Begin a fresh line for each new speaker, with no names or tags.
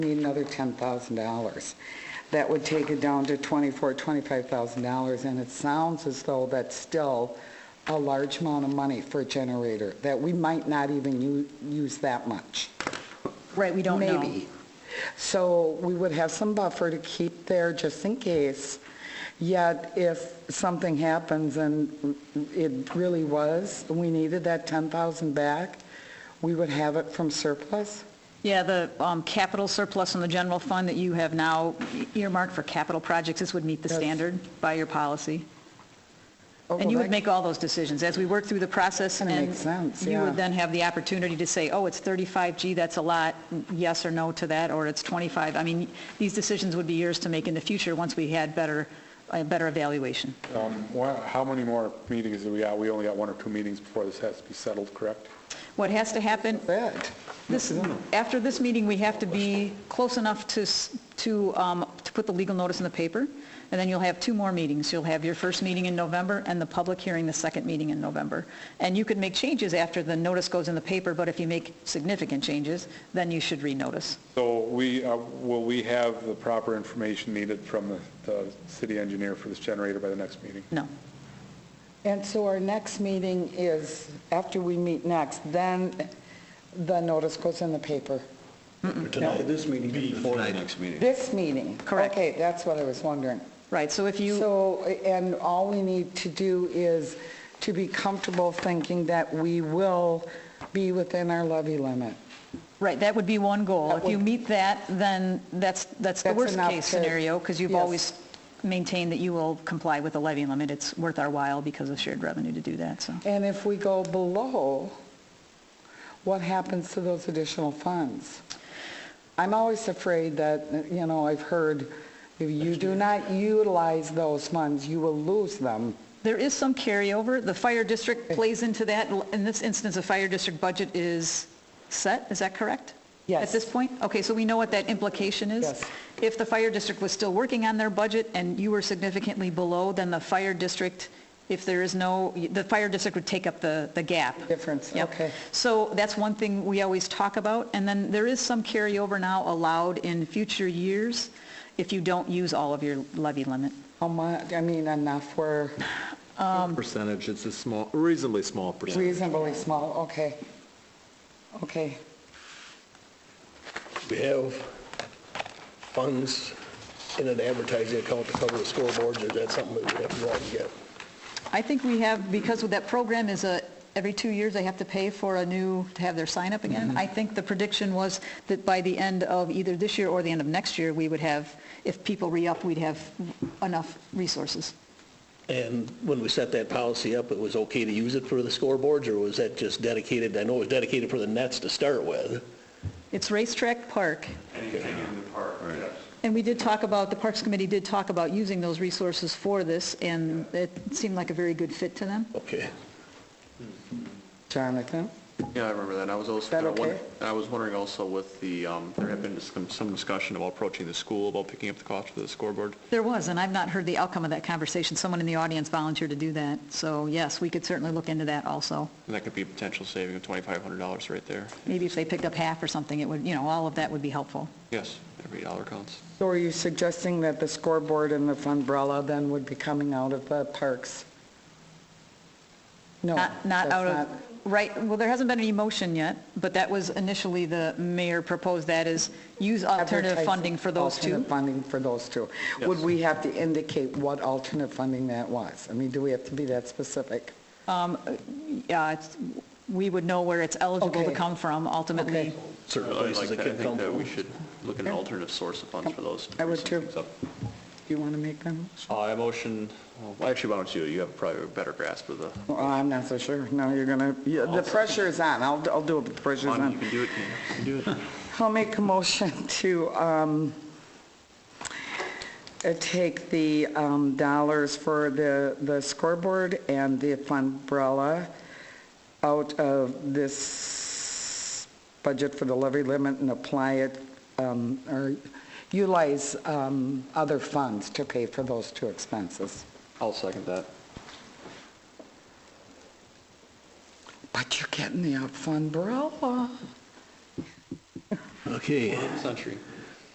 need another $10,000. That would take it down to $24,000, $25,000, and it sounds as though that's still a large amount of money for a generator, that we might not even u- use that much.
Right, we don't know.
Maybe. So we would have some buffer to keep there just in case, yet if something happens and it really was, we needed that 10,000 back, we would have it from surplus?
Yeah, the um, capital surplus in the general fund that you have now earmarked for capital projects, this would meet the
That's-
standard by your policy.
Oh,
And you
well,
would
that-
make all those decisions as we work through the process.
Kinda
and
makes sense,
You
yeah.
would then have the opportunity to say, oh, it's 35G, that's a lot, yes or no to that, or it's 25. I mean, these decisions would be yours to make in the future once we had better, a better evaluation.
Um, wha- How many more meetings do we got? We only got one or two meetings before this has to be settled, correct?
What has to happen,
That.
This, after this meeting, we have to be close enough to, s- to, um, to put the legal notice in the paper, and then you'll have two more meetings. You'll have your first meeting in November and the public hearing, the second meeting in November. And you can make changes after the notice goes in the paper, but if you make significant changes, then you should renotice.
So we, uh, will we have the proper information needed from the- the city engineer for this generator by the next meeting?
No.
And so our next meeting is, after we meet next, then the notice goes in the paper.
Tonight, this meeting, before the next meeting.
This meeting?
Correct.
Okay, that's what I was wondering.
Right, so if you,
So, and all we need to do is to be comfortable thinking that we will be within our levy limit.
right, that would be one goal.
That
If you
would-
meet that, then that's, that's the
That's
worst
enough
case
to-
scenario, because you've
yes.
always maintained that you will comply with the levy limit. It's worth our while because of shared revenue to do that, so.
And if we go below, what happens to those additional funds? I'm always afraid that, you know, I've heard, if you do not utilize those funds, you will lose them.
There is some carryover. The fire district plays into that. In this instance, the fire district budget is set, is that correct?
Yes.
At this point? Okay, so we know what that implication is?
Yes.
If the fire district was still working on their budget and you were significantly below, then the fire district, if there is no, the fire district would take up the, the gap.
Difference,
Yep.
okay.
So that's one thing we always talk about. And then there is some carryover now allowed in future years if you don't use all of your levy limit.
How much, I mean, enough where
Percentage, it's a small, reasonably small percentage.
reasonably small, okay. Okay,
We have funds in an advertising account to cover the scoreboards, or is that something that we have to go out and get?
I think we have, because with that program is a, every two years they have to pay for a new, to have their sign up again. I think the prediction was that by the end of either this year or the end of next year, we would have, if people re-up, we'd have enough resources.
And when we set that policy up, it was okay to use it for the scoreboards, or was that just dedicated, I know it was dedicated for the nets to start with.
It's racetrack park.
Anything in the park, yes.
And we did talk about, the Parks Committee did talk about using those resources for this, and it seemed like a very good fit to them.
Okay.
Jonathan?
Yeah, I remember that, and I was also,
that
kinda wonder-
okay?
and I was wondering also with the, um, there had been some some discussion about approaching the school, about picking up the cost for the scoreboard.
There was, and I've not heard the outcome of that conversation. Someone in the audience volunteered to do that. So yes, we could certainly look into that also.
And that could be a potential saving of $2,500 right there.
Maybe if they picked up half or something, it would, you know, all of that would be helpful.
Yes, every dollar counts.
So are you suggesting that the scoreboard and the umbrella then would be coming out of the parks? No.
Not, not
that's
out of, right, well, there hasn't been any motion yet, but that was initially the mayor proposed that is use alternative
advertising.
funding for those two.
Alternate funding for those two. Would we have to indicate what alternate funding that was? I mean, do we have to be that specific?
Yeah, it's- we would know where it's eligible to
Okay.
come from ultimately.
Okay.
Certain
I
places
like
that
that. I
can
think
come
that we
from.
should look at an alternative source of funds for those. to
I would too.
bring some things up.
Do you want to make them?
Uh, I motion, well, actually, why don't you, you have probably a better grasp of the,
Well, I'm not so sure. No, you're going to, the pressure is on. I'll, I'll do it, but the pressure's
Juan,
on.
you can do it, you can do it.
I'll make a motion to um, uh, take the um, dollars for the the scoreboard and the umbrella out of this budget for the levy limit and apply it, um, or utilize um, other funds to pay for those two expenses.
I'll second that.
But you're getting the umbrella.
Okay,
Century.